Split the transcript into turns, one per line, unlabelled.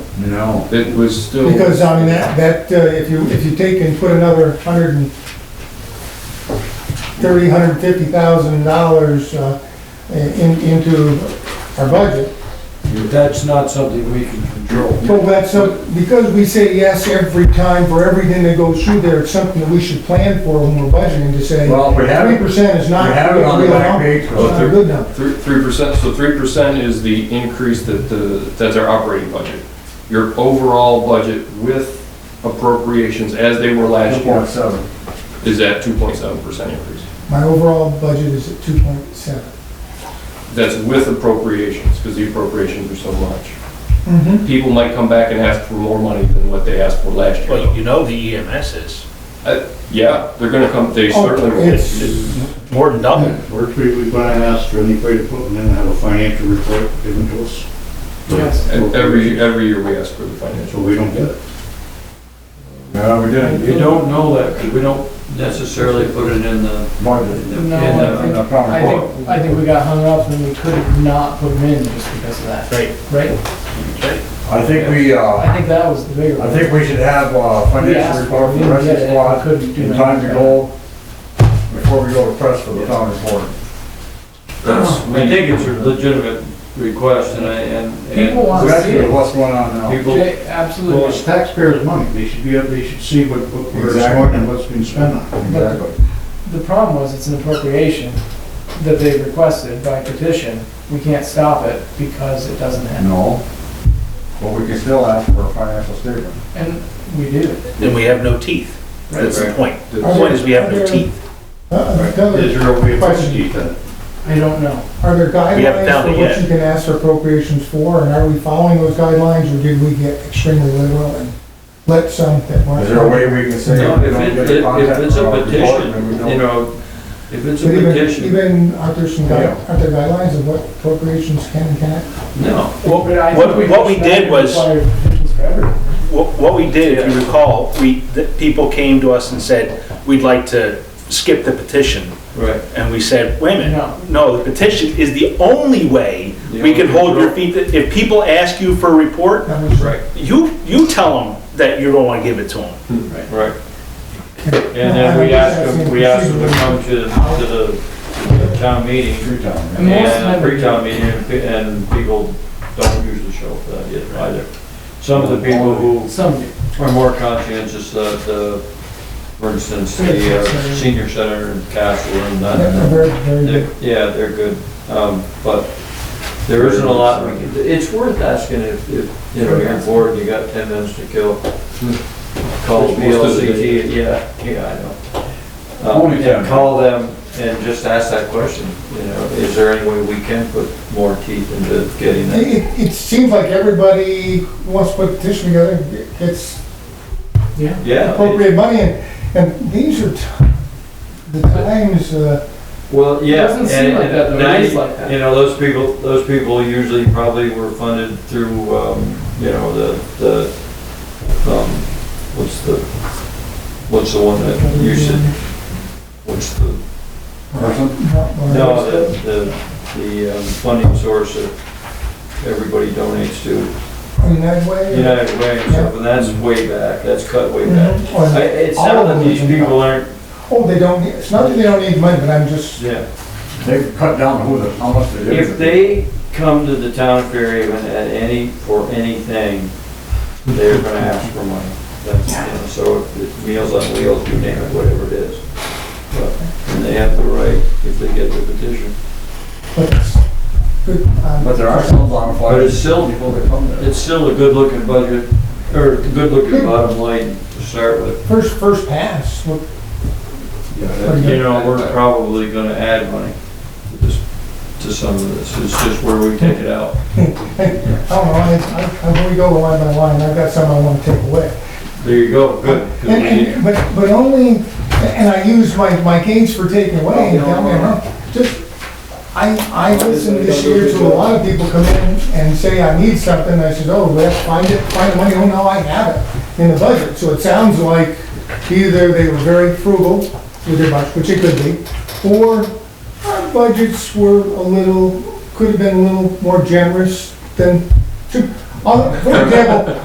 No, it was still.
Because, I mean, that, that, uh, if you, if you take and put another hundred and thirty, hundred and fifty thousand dollars, uh, in, into our budget,
That's not something we can control.
well, that's, so- because we say yes every time for everything that goes through there, it's something that we should plan for when we're budgeting to say,
Well, we have it-
three percent is not.
we have it on the
a real
back
number.
page.
It's not a good number.
Three, three percent, so three percent is the increase that the, that's our operating budget. Your overall budget with appropriations as they were last year
seven.
is at two point seven percent increase.
My overall budget is at two point seven.
That's with appropriations, because the appropriations are so much.
Mm-hmm.
People might come back and ask for more money than what they asked for last year.
Well, you know the EMS is
Uh, Yeah, they're gonna come, they
Oh,
certainly will.
it's-
more than double.
We're treated by us for any way to put them in, have a financial report given to us.
Yes.
And Every, every year we ask for the financial.
So we don't get it.
No, we didn't. You don't know that, 'cause we don't
necessarily put it in the,
budget.
in
No,
the- in the-
And, uh, probably-
I think, I think we got hung up and we could not put them in just because of that,
Right.
right?
I think we, uh,
I think that was the bigger one.
I think we should have a
We
financial
asked for
report
it,
for the
we
rest of
didn't
the
get it,
squad
couldn't do
in time to
nothing.
go before we go to press for the town report.
That's-
I think it's a legitimate request and I, and. and-
People want-
That's what's going on now.
People,
Jay,
Well,
Absolutely.
it's taxpayers' money, they should be, they should see what, what we're
Exactly.
short and what's been spent on.
Exactly.
The problem was it's an appropriation that they requested by petition. We can't stop it because it doesn't happen.
No, but we can still ask for a financial statement.
And we do.
And we have no teeth. That's the point. The
Right.
point is we have no teeth.
Uh, another-
Is there a way of
Question.
budgeting that?
I don't know.
Are there
We haven't
guidelines
found
for
it
what
yet.
you can ask for appropriations for, and are we following those guidelines, or did we get extremely liberal and let some that weren't?
Is there a way we can say?
No,
we
if
don't
it,
get a
if
contact
it's a
from our department,
petition,
we don't-
you know, if it's a
But even,
petition,
even, aren't there some,
Yeah.
guide- aren't there guidelines of what appropriations can and can't?
no.
What,
But I
what
think
we- what we
should
did
not
was,
require petitions for everything.
what what we did, if you recall, we, the people came to us and said, we'd like to skip the petition.
Right.
And we said, wait a
No.
minute, no, the petition is the only way we can hold your feet. If people ask you for a report,
That was-
Right,
you, you tell them that you don't want to give it to them.
right. And then we ask them, we ask them to come to, to the town meeting
Three times.
And most
and
of them-
pre-town meeting and pe- and people don't usually show up that yet either. Some of the people who
Some do.
are more conscientious, uh, the, for instance, the uh, senior center in Castle and
They're- they're
that,
very- very
They're-
good.
Yeah, they're good, um, but there isn't a lot, we can- it's worth asking if, if, you know, you're bored, you got ten minutes to kill. Call
Most of the
VLCT, yeah, yeah, I know. Um,
Only
and
10.
Call them and just ask that question, you know, is there any way we can put more teeth into getting
It,
that?
it- it seems like everybody wants to put a petition together, gets
Yeah.
Yeah, it-
appropriate money, and, and these are t- the times, uh,
well, yeah.
doesn't seem
and-
like
and
that, though. It
now
is
you-
like that.
You know, those people, those people usually probably were funded through, um, you know, the, the, um, what's the, what's the one that you should, what's the,
Person?
not-
no, the, the, the um, funding source that everybody donates to,
in that way.
United Way and stuff, and that's way back, that's cut way back.
Mhm. Or-
Mm-hmm.
I- It's not that these people aren't,
Oh, they don't, need- it's not that they don't need money, but I'm just,
yeah.
They've cut down who the, how much they did.
If they come to the town of Fairhaven at any, for anything, they're gonna ask for money. That's, you know, so if it's Meals on Wheels, you name it, whatever it is. But- And they have the right if they get the petition.
but it's good. um,
But there are some on fire.
But it's still-
People that come there.
It's still a good-looking budget, or a good-looking bottom line to start with.
First, first pass, look,
You know, we're probably gonna add money to this, to some of this. It's just where we take it out.
I don't know, Oh, I, I, I'm gonna go line by line, I've got some I wanna take away.
There you go, good. 'cause we
And,
need-
and, but, but only, and I use my, my gains for taking away,
Oh,
and tell me, I'm wrong. just, I, I listened this year to a lot of people come in and say, I need something, I said, oh, let's find it, find the money, oh, now I have it in the budget, so it sounds like either they were very frugal with their budget, which it could be, or our budgets were a little, could have been a little more generous than, to- uh, for example,